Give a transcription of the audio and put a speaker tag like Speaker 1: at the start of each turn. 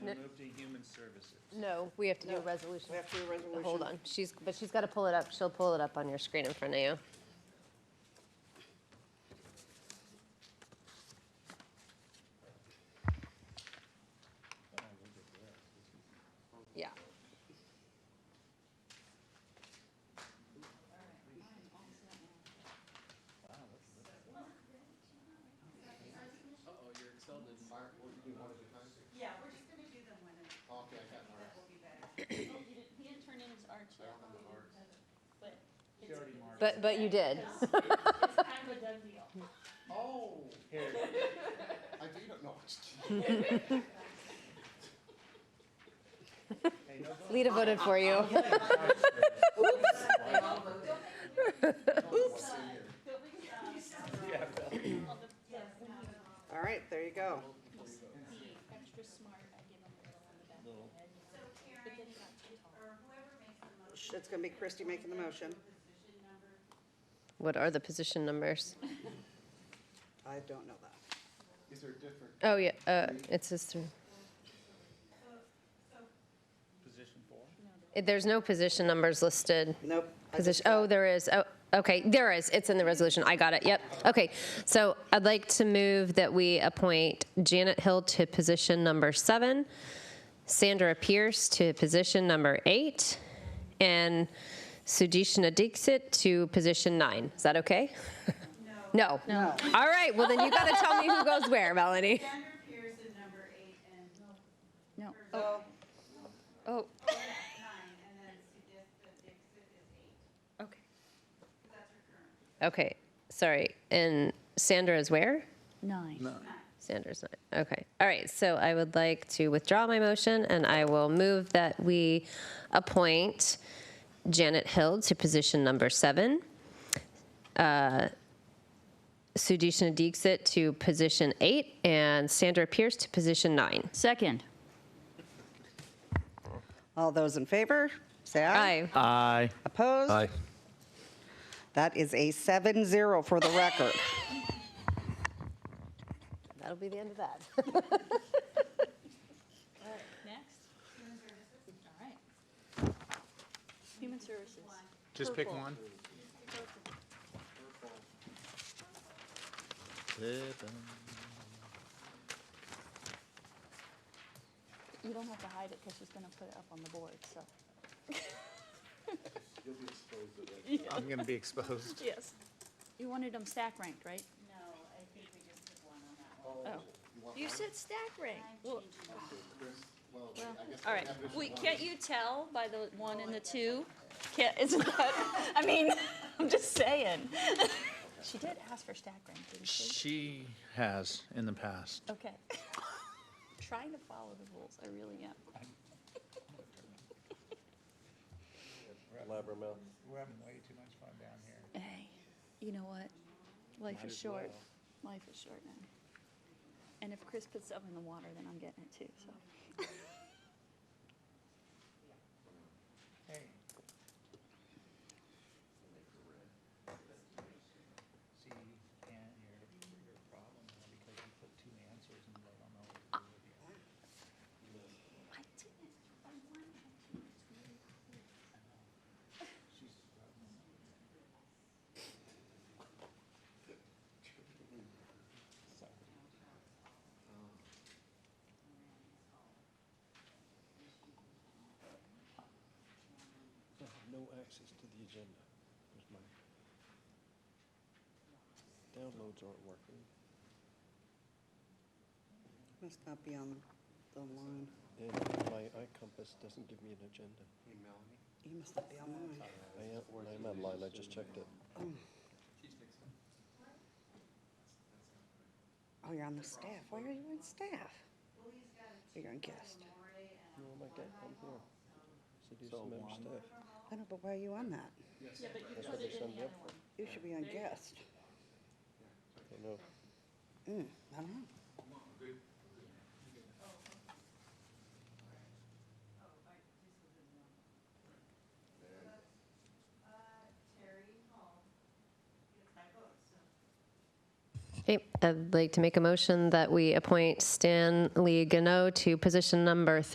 Speaker 1: we'll move to human services.
Speaker 2: No, we have to do a
Speaker 3: No,
Speaker 2: resolution.
Speaker 3: we have to do a resolution.
Speaker 2: Hold on, she's, but she's got to pull it up. She'll pull it up on your screen in front of you. Yeah.
Speaker 4: Uh-oh, your Excel didn't work.
Speaker 5: Yeah, we're just gonna do them when it's. That will be better.
Speaker 6: Oh, you didn't, he didn't turn in his arch yet. But it's,
Speaker 2: But, but you did.
Speaker 6: it's kind of a done deal.
Speaker 4: Oh,
Speaker 1: Here,
Speaker 7: I do not know.
Speaker 1: hey, no vote.
Speaker 2: Lita voted for you.
Speaker 6: But we, um,
Speaker 1: Yeah, well,
Speaker 6: all the, yes,
Speaker 3: All right, there you go.
Speaker 6: the extra smart, I give him a little on the back of the head.
Speaker 5: So
Speaker 6: But then
Speaker 5: Karen,
Speaker 6: he got too tall.
Speaker 5: or whoever makes the motion,
Speaker 3: It's gonna be Christie making the motion.
Speaker 5: position number,
Speaker 2: What are the position numbers?
Speaker 3: I don't know that.
Speaker 7: Is there different?
Speaker 2: Oh, yeah, uh, it says three.
Speaker 1: position four.
Speaker 2: It- There's no position numbers listed.
Speaker 3: Nope. I just
Speaker 2: Position, oh, there is, oh, okay, there is, it's in the resolution, I got it, yep, okay. So I'd like to move that we appoint Janet Hill to position number seven, Sandra Pierce to position number eight, and Sujeshna Dixit to position nine. Is that okay? No. No? All right, well, then you gotta tell me who goes where, Melanie.
Speaker 5: Sandra Pearson, number eight, and
Speaker 3: Oh,
Speaker 2: Oh,
Speaker 5: nine, and then Sudipta Dixit is eight.
Speaker 2: okay.
Speaker 5: Because that's her current.
Speaker 2: Okay, sorry, and Sandra is where?
Speaker 6: Nine.
Speaker 2: Sanders, nine. Okay. All right. So I would like to withdraw my motion and I will move that we appoint Janet Hill to position number seven, uh, Sudeshna Dixit to position eight, and Sandra Pierce to position nine.
Speaker 6: Second.
Speaker 3: all those in favor, say oh. aye.
Speaker 2: Aye.
Speaker 8: Aye.
Speaker 3: Opposed?
Speaker 9: Aye.
Speaker 3: That is a 7-0 for the record.
Speaker 2: That'll be the end of that.
Speaker 6: Next. All right. Human services.
Speaker 9: Just pick one?
Speaker 6: You don't have to hide it because she's going to put it up on the board, so.
Speaker 9: I'm going to be exposed.
Speaker 6: Yes. You wanted them stack ranked, right?
Speaker 5: No, I think we just took one on that one.
Speaker 6: Oh. You said stack ranked. Well,
Speaker 7: Well, I guess.
Speaker 6: all right. Wait, can't you tell by the one and the two? Can't, isn't that, I mean, I'm just saying. She did ask for stack rank, didn't she?
Speaker 8: She has in the past.
Speaker 6: Okay. Trying to follow the rules, I really am.
Speaker 9: Blabbermouth.
Speaker 1: We're having way too much fun down here.
Speaker 6: Hey, you know what? Life is short. Life is short now. And if Chris puts something in the water, then I'm getting it too, so.
Speaker 1: Hey. See, and your, your problem is because you put two answers and they don't know what to do with you.
Speaker 6: I didn't, I wanted to.
Speaker 9: No access to the agenda. There's my Downloads aren't working.
Speaker 3: Must not be on the line.
Speaker 9: And my iCompass doesn't give me an agenda.
Speaker 3: You must not be on mine.
Speaker 9: I am, I'm online, I just checked it.
Speaker 3: Oh, you're on the staff. Why are you on staff? You're on guest.
Speaker 9: No, my God, I'm here. City of Smash staff.
Speaker 3: I know, but why are you on that?
Speaker 6: Yeah, but you
Speaker 9: That's
Speaker 6: put
Speaker 9: what they
Speaker 6: it in
Speaker 9: signed
Speaker 6: the
Speaker 9: me up
Speaker 6: other one.
Speaker 3: You should be on guest.
Speaker 9: I know.
Speaker 3: Mm, I don't know.
Speaker 5: Terry Hall gets my vote, so.
Speaker 2: Okay, I'd like to make a motion that we appoint Stanley Gano to position number